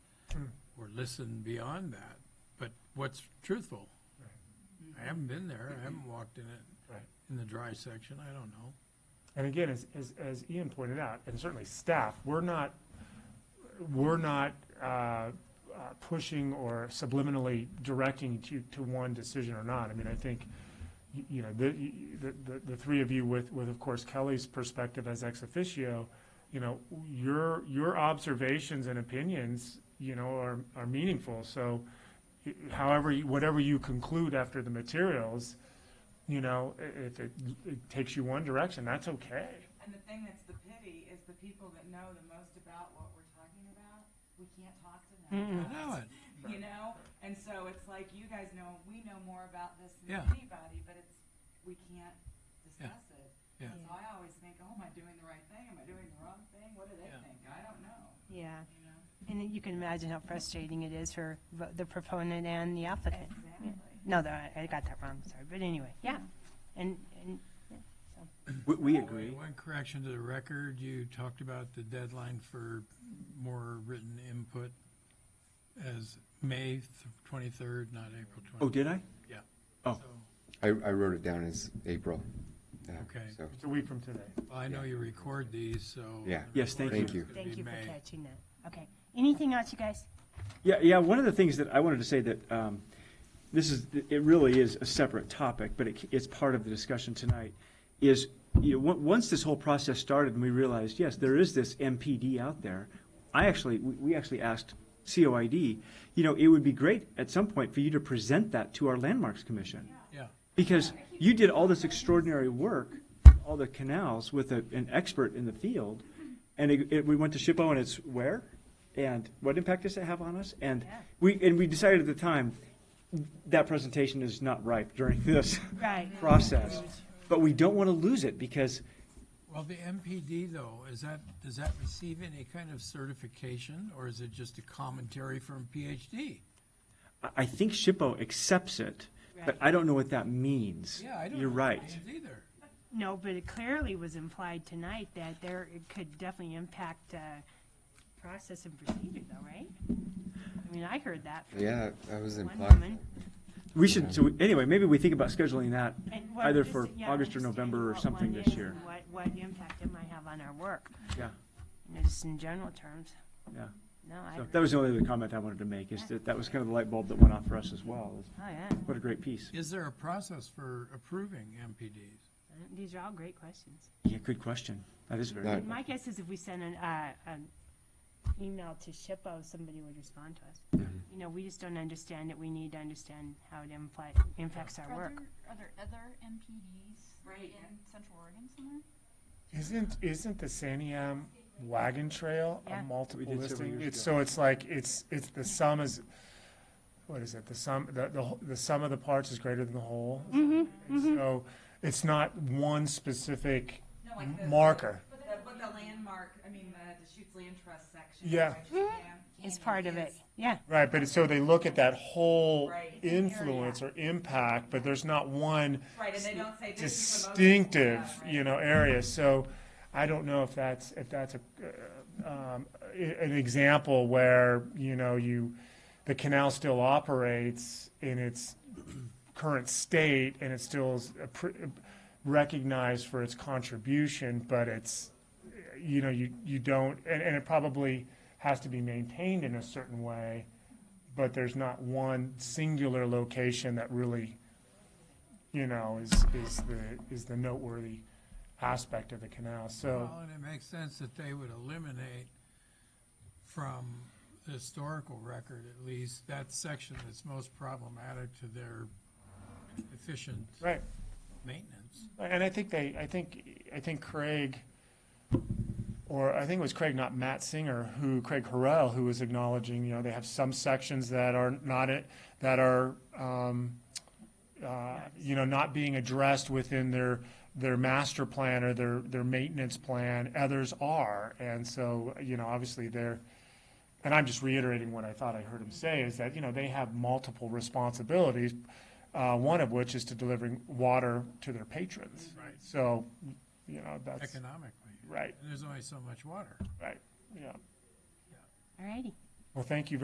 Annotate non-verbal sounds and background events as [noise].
listen beyond that, but what's truthful? I haven't been there, Mm-hmm. I haven't walked in it, Right. in the dry section, I don't know. And again, as, as, as Ian pointed out, and certainly staff, we're not, we're not, uh, uh, pushing or subliminally directing to, to one decision or not. I mean, I think, y- you know, the, y- the, the, the three of you with, with, of course, Kelly's perspective as ex officio, you know, your, your observations and opinions, you know, are, are meaningful. So y- however, you- whatever you conclude after the materials, you know, i- if it, it takes you one direction, that's okay. And the thing that's the pity is the people that know the most about what we're talking about, we can't talk to them. I know it. You know, and so it's like you guys know we know more about this than Yeah. anybody, but it's we can't discuss it. Yeah. And So I always think, oh, am I doing the right thing? Am I doing the wrong thing? What do they Yeah. think? I don't know. Yeah, You know, and you can imagine how frustrating it is for vo- the proponent and the applicant. exactly. No, that- I got that wrong, sorry, but anyway, yeah. And, and, yeah, so, We, we agree. Oh, One correction to the record, you talked about the deadline for more written input as May twenty-third, not April Oh, twenty. did I? Yeah. Oh. So, I, I wrote it down as April. uh, Okay. So, It's a week from today. I know you record these, so. Yeah. Yes, thank you. thank you for catching that. Okay, anything else, you guys? Yeah, yeah, one of the things that I wanted to say that, um, this is, it really is a separate topic, but it, it's part of the discussion tonight, is, you know, on- once this whole process started and we realized, yes, there is this MPD out there, I actually, we, we actually asked COID, you know, it would be great at some point for you to present that to our Landmarks Commission. Yeah, Because you did all this extraordinary work, all the canals with a, an expert in the field, and it, it, we went to SHPO and it's where? And what impact does it have on us? And Yeah. we, and we decided at the time, that presentation is not ripe during [laughs] this Right. process. But we don't want to lose it because, well, the MPD though, is that, does that receive any kind of certification or is it just a commentary from PhD? I, I think SHPO accepts it, but I don't know what that means. Yeah, I don't. You're know what it right. means Either. No, but it clearly was implied tonight that there, it could definitely impact, uh, process and procedure though, right? I mean, I heard that from yeah, that was one implied. woman. We should, so we- anyway, maybe we think about scheduling that And what either this- for yeah, August or understanding November or what something one this is year. and What, what impact it might have on our work, Yeah, you know, just in general terms. yeah. No, I, So agree. that was the only other comment I wanted to make, is that that was kind of the light bulb that went off for us as well. is oh, yeah. What a great piece. Is there a process for approving MPDs? Uh, These are all great questions. Yeah, good question. That is very, Not- And my guess is if we sent an, uh, an email to SHPO, somebody would respond to us. You know, we just don't understand it. We need to understand how it impli- impacts our Are work. there, are there other MPDs Right. in Central Oregon somewhere? Isn't, isn't the Saniam wagon trail Yeah. a multiple We did several listing? years It's, ago. so it's like, it's, it's, the sum is, what is it, the sum, the, the, wh- the sum of the parts is greater than the whole? Mm-hmm, And So, it's not one specific No, like the, marker. But the, but the landmark, I mean, the Deschutes Land Trust section. Yeah. right, It's Canyon part of it. is- Yeah. Right, but it's, so they look at that whole Right. It's influence or impact, but there's not one Right, and they don't say this is the most- distinctive, Yeah, right. you know, area. So I don't know if that's, if that's a, uh, um, i- an example where, you know, you, the canal still operates in its current state and it still is appr- recognized for its contribution, but it's, you know, you, you don't, and, and it probably has to be maintained in a certain way, but there's not one singular location that really, you know, is, is the, is the noteworthy aspect of the canal, so. Well, and it makes sense that they would eliminate from the historical record, at least, that section that's most problematic to their efficient Right, maintenance. and I think they, I think, I think Craig, or I think it was Craig, not Matt Singer, who, Craig Harrell, who was acknowledging, you know, they have some sections that are not, it- that are, um, uh, you know, not being addressed within their, their master plan or their, their maintenance plan, others are. And so, you know, obviously they're, and I'm just reiterating what I thought I heard him say, is that, you know, they have multiple responsibilities, uh, one of which is to delivering water to their patrons. Right. So, you know, that's, Economically. right, And there's only so much water. right, yeah. All righty. Well, thank you very